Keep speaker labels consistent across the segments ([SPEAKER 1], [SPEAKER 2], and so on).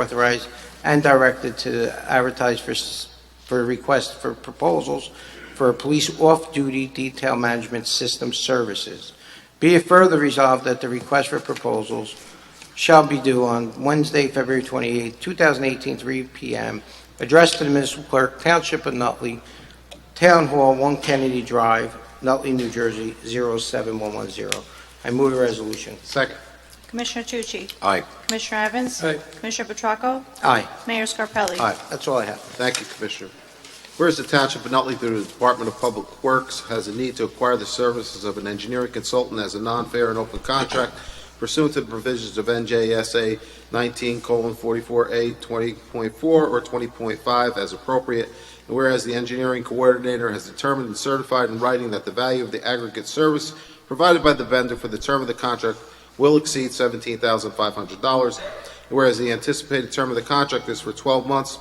[SPEAKER 1] authorized and directed to advertise for, s- for requests for proposals for police off-duty detail management system services. Be it further resolved that the request for proposals shall be due on Wednesday, February 28, 2018, 3 p.m., addressed to the municipal clerk, Township of Nutley, Town Hall, 1 Kennedy Drive, Nutley, New Jersey, 07110. I move the resolution.
[SPEAKER 2] Second.
[SPEAKER 3] Commissioner Tucci?
[SPEAKER 2] Aye.
[SPEAKER 3] Commissioner Evans?
[SPEAKER 2] Aye.
[SPEAKER 3] Commissioner Petracco?
[SPEAKER 1] Aye.
[SPEAKER 3] Mayor Scarpelli?
[SPEAKER 2] Aye.
[SPEAKER 1] That's all I have.
[SPEAKER 2] Thank you, Commissioner. Whereas the Township of Nutley through the Department of Public Works has a need to acquire the services of an engineering consultant as a non-fair and open contract pursuant to the provisions of NJSA 19:44A 20.4 or 20.5 as appropriate, and whereas the engineering coordinator has determined and certified in writing that the value of the aggregate service provided by the vendor for the term of the contract will exceed $17,500, and whereas the anticipated term of the contract is for 12 months,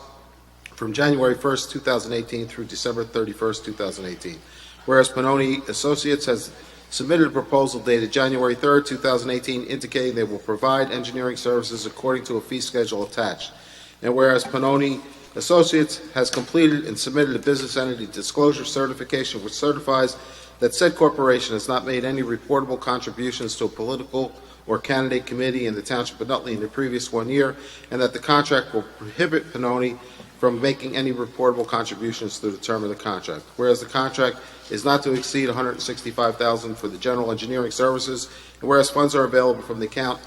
[SPEAKER 2] from January 1st, 2018 through December 31st, 2018. Whereas Panoni Associates has submitted a proposal dated January 3rd, 2018 indicating they will provide engineering services according to a fee schedule attached. And whereas Panoni Associates has completed and submitted a business entity disclosure certification which certifies that said corporation has not made any reportable contributions to a political or candidate committee in the Township of Nutley in the previous one year, and that the contract will prohibit Panoni from making any reportable contributions through the term of the contract. Whereas the contract is not to exceed $165,000 for the general engineering services, and whereas funds are available from the account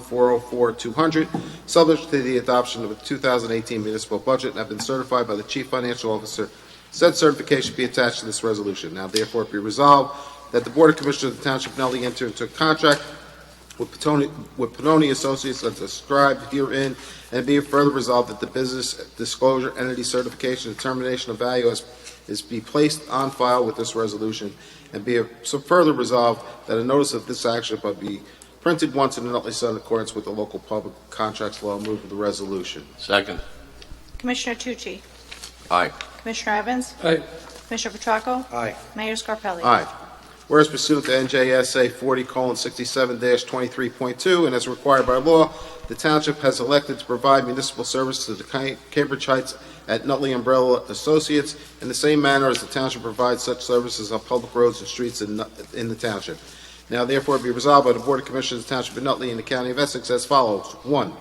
[SPEAKER 2] 8-01-404-200, subject to the adoption of the 2018 municipal budget, and have been certified by the Chief Financial Officer. Said certification be attached to this resolution. Now therefore be resolved that the Board of Commissioners of the Township of Nutley enter into a contract with Petoni- with Panoni Associates as described herein, and be it further resolved that the business disclosure entity certification determination of value is, is be placed on file with this resolution, and be it so further resolved that a notice of this action but be printed once in the Nutley Sun in accordance with the local public contracts law. Move the resolution.
[SPEAKER 4] Second.
[SPEAKER 3] Commissioner Tucci?
[SPEAKER 4] Aye.
[SPEAKER 3] Commissioner Evans?
[SPEAKER 4] Aye.
[SPEAKER 3] Commissioner Petracco?
[SPEAKER 1] Aye.
[SPEAKER 3] Mayor Scarpelli?
[SPEAKER 2] Aye. Whereas pursuant to NJSA 40:67-23.2 and as required by law, the township has elected to provide municipal service to the Ca- Cambridge Heights at Nutley Umbrella Associates in the same manner as the township provides such services on public roads and streets in Nut- in the township. Now therefore be resolved by the Board of Commissioners of the Township of Nutley and the County of Essex as follows. One,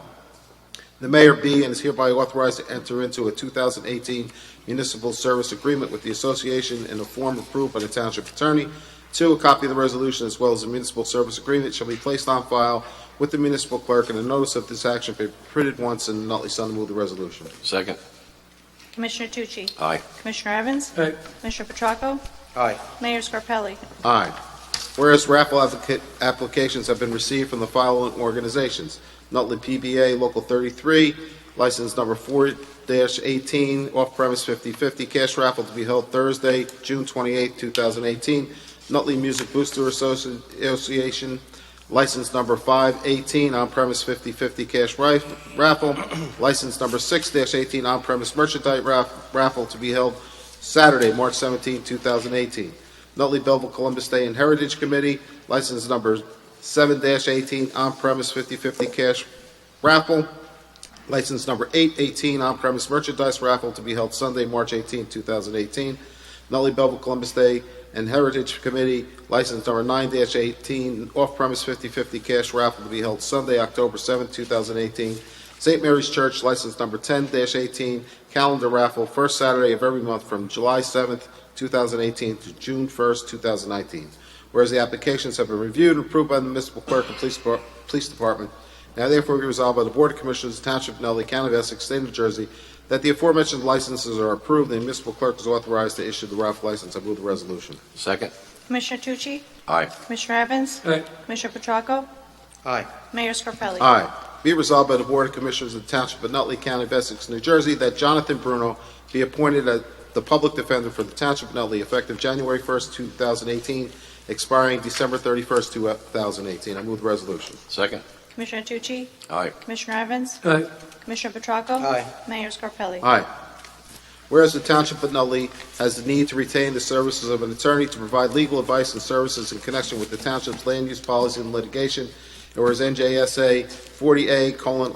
[SPEAKER 2] the mayor be and is hereby authorized to enter into a 2018 municipal service agreement with the association in a form approved by the township attorney. Two, a copy of the resolution as well as the municipal service agreement shall be placed on file with the municipal clerk and a notice of this action be printed once in the Nutley Sun to move the resolution.
[SPEAKER 4] Second.
[SPEAKER 3] Commissioner Tucci?
[SPEAKER 4] Aye.
[SPEAKER 3] Commissioner Evans?
[SPEAKER 4] Aye.
[SPEAKER 3] Commissioner Petracco?
[SPEAKER 1] Aye.
[SPEAKER 3] Mayor Scarpelli?
[SPEAKER 2] Aye. Whereas raffle applica- applications have been received from the following organizations: Nutley PBA Local 33, license number 4-18, off-premise 50/50, cash raffle to be held Thursday, June 28, 2018. Nutley Music Booster Associ- Association, license number 5-18, on-premise 50/50, cash rif- raffle. License number 6-18, on-premise merchandise raff- raffle to be held Saturday, March 17, 2018. Nutley Belleville Columbus Day and Heritage Committee, license number 7-18, on-premise 50/50 cash raffle, license number 818, on-premise merchandise raffle to be held Sunday, March 18, 2018. Nutley Belleville Columbus Day and Heritage Committee, license number 9-18, off-premise 50/50 cash raffle to be held Sunday, October 7, 2018. St. Mary's Church, license number 10-18, calendar raffle, first Saturday of every month from July 7th 2018 to June 1st, 2019. Whereas the applications have been reviewed and approved by the municipal clerk and police depart- police department, now therefore be resolved by the Board of Commissioners of the Township of Nutley, County of Essex, State of New Jersey, that the aforementioned licenses are approved and the municipal clerk is authorized to issue the raffle license. I move the resolution.
[SPEAKER 4] Second.
[SPEAKER 3] Commissioner Tucci?
[SPEAKER 4] Aye.
[SPEAKER 3] Commissioner Evans?
[SPEAKER 4] Aye.
[SPEAKER 3] Commissioner Petracco?
[SPEAKER 1] Aye.
[SPEAKER 3] Mayor Scarpelli?
[SPEAKER 2] Aye. Be it resolved by the Board of Commissioners of the Township of Nutley County of Essex, New Jersey, that Jonathan Bruno be appointed as the public defender for the Township of Nutley effective January 1st, 2018, expiring December 31st, 2018. I move the resolution.
[SPEAKER 4] Second.
[SPEAKER 3] Commissioner Tucci?
[SPEAKER 4] Aye.
[SPEAKER 3] Commissioner Evans?
[SPEAKER 4] Aye.
[SPEAKER 3] Commissioner Petracco?
[SPEAKER 1] Aye.
[SPEAKER 3] Mayor Scarpelli?
[SPEAKER 2] Aye. Whereas the Township of Nutley has the need to retain the services of an attorney to provide legal advice and services in connection with the Township's land use policy and litigation, and whereas NJSA 40A colon